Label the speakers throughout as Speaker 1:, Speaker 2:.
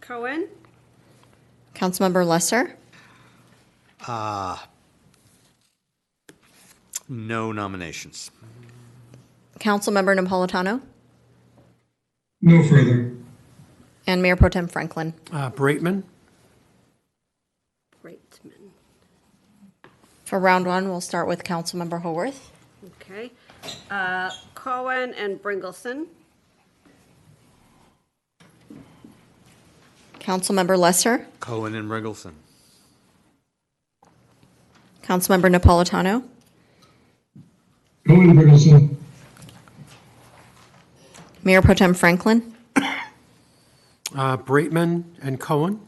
Speaker 1: Troen,
Speaker 2: Councilmember Lesser?
Speaker 3: No nominations.
Speaker 2: Councilmember Napolitano?
Speaker 4: No further.
Speaker 2: And Mayor Pro Tem Franklin?
Speaker 5: Uh, Braitman?
Speaker 1: Reitman.
Speaker 2: For round one, we'll start with Councilmember Haworth.
Speaker 1: Okay. Uh, Cohen and Bringelson.
Speaker 2: Councilmember Lesser?
Speaker 3: Cohen and Riggleson.
Speaker 2: Councilmember Napolitano?
Speaker 4: Cohen Brigelson.
Speaker 2: Mayor Pro Tem Franklin?
Speaker 5: Uh, Braitman and Cohen?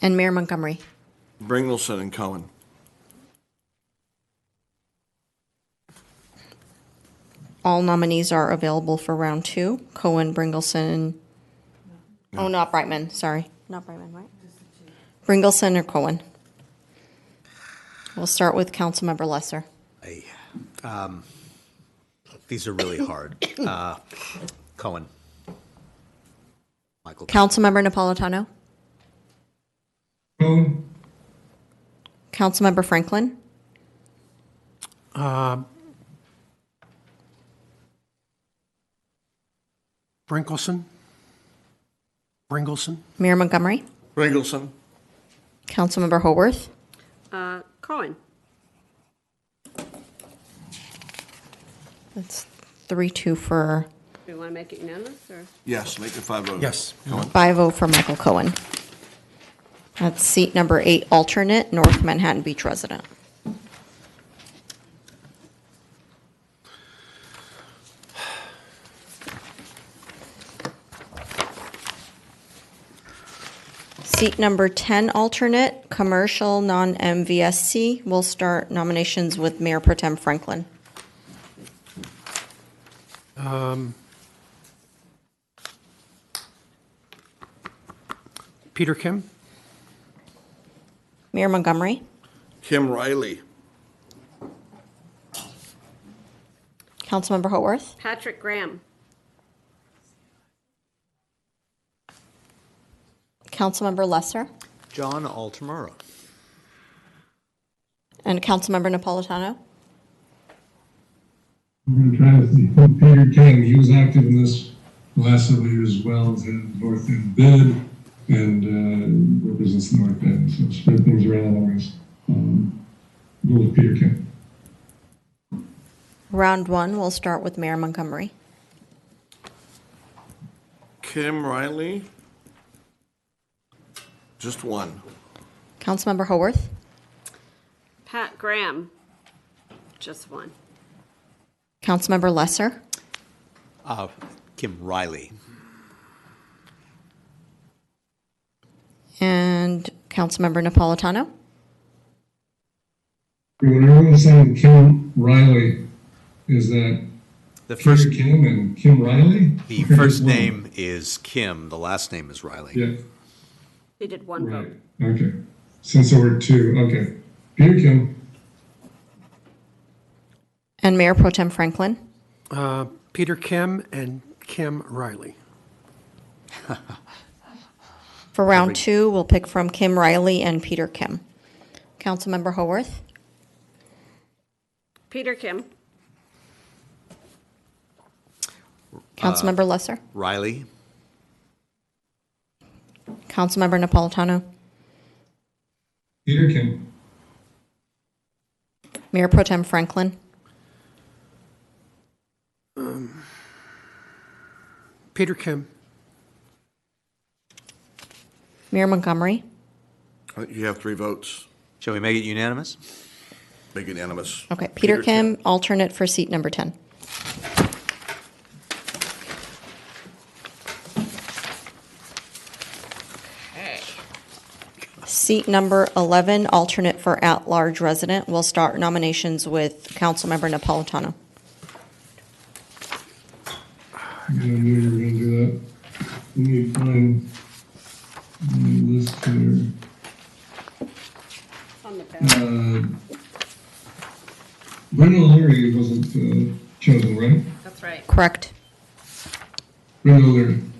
Speaker 2: And Mayor Montgomery?
Speaker 6: Bringelson and Cohen.
Speaker 2: All nominees are available for round two. Cohen, Bringelson, oh, not Brightman, sorry. Not Brightman, right? Bringelson or Cohen? We'll start with Councilmember Lesser.
Speaker 3: These are really hard. Uh, Cohen. Michael.
Speaker 2: Councilmember Napolitano?
Speaker 4: Cohen.
Speaker 2: Councilmember Franklin?
Speaker 5: Brinkelson? Bringelson?
Speaker 2: Mayor Montgomery?
Speaker 6: Bringelson.
Speaker 2: Councilmember Haworth?
Speaker 1: Uh, Cohen,
Speaker 2: That's three, two for,
Speaker 1: do you want to make it unanimous or?
Speaker 6: Yes, make it five oh.
Speaker 5: Yes.
Speaker 6: Cohen.
Speaker 2: five oh for Michael Cohen. That's seat number eight, alternate, North Manhattan Beach resident. Seat number ten, alternate, commercial, non-MVSC. We'll start nominations with Mayor Pro Tem Franklin.
Speaker 5: Peter Kim?
Speaker 2: Mayor Montgomery,
Speaker 6: Kim Riley.
Speaker 2: Councilmember Hoarth,
Speaker 1: Patrick Graham,
Speaker 2: Councilmember Lesser,
Speaker 3: John Altamura.
Speaker 2: and Councilmember Napolitano.
Speaker 4: We're going to try to see. Peter King, he was active in this last several years as well, as in North End bid and uh, represents the North End, so spread things around always. Um, Go with Peter King.
Speaker 2: Round one, we'll start with Mayor Montgomery.
Speaker 6: Kim Riley. Just one.
Speaker 2: Councilmember Haworth,
Speaker 1: Pat Graham, just one.
Speaker 2: Councilmember Lesser,
Speaker 3: Uh, Kim Riley.
Speaker 2: and Councilmember Napolitano.
Speaker 4: When everyone's saying Kim Riley, is that
Speaker 3: The first,
Speaker 4: Peter Kim and Kim Riley?
Speaker 3: the
Speaker 4: Or
Speaker 3: first
Speaker 4: just one?
Speaker 3: name is Kim. The last name is Riley.
Speaker 4: Yeah.
Speaker 1: He did one
Speaker 4: Right,
Speaker 1: vote.
Speaker 4: okay. Since there were two, okay. Peter Kim,
Speaker 2: And Mayor Pro Tem Franklin.
Speaker 5: Uh, Peter Kim and Kim Riley.
Speaker 2: For round two, we'll pick from Kim Riley and Peter Kim. Councilmember Haworth,
Speaker 1: Peter Kim,
Speaker 2: Councilmember Lesser,
Speaker 3: Riley.
Speaker 2: Councilmember Napolitano,
Speaker 4: Peter Kim,
Speaker 2: Mayor Pro Tem Franklin,
Speaker 5: Peter Kim?
Speaker 2: Mayor Montgomery,
Speaker 6: I think Uh, You have three votes.
Speaker 3: Shall we make it unanimous?
Speaker 6: Make it unanimous.
Speaker 2: Okay, Peter Kim, alternate for seat number 10. Seat number 11, alternate for at-large resident. We'll start nominations with Councilmember Napolitano.
Speaker 4: I knew you were gonna do that. We need to find my list here.
Speaker 1: on the ballot.
Speaker 4: Uh, Brendan O'Leary wasn't uh, chosen, right?
Speaker 1: That's right.
Speaker 2: Correct.
Speaker 4: Brendan O'Leary.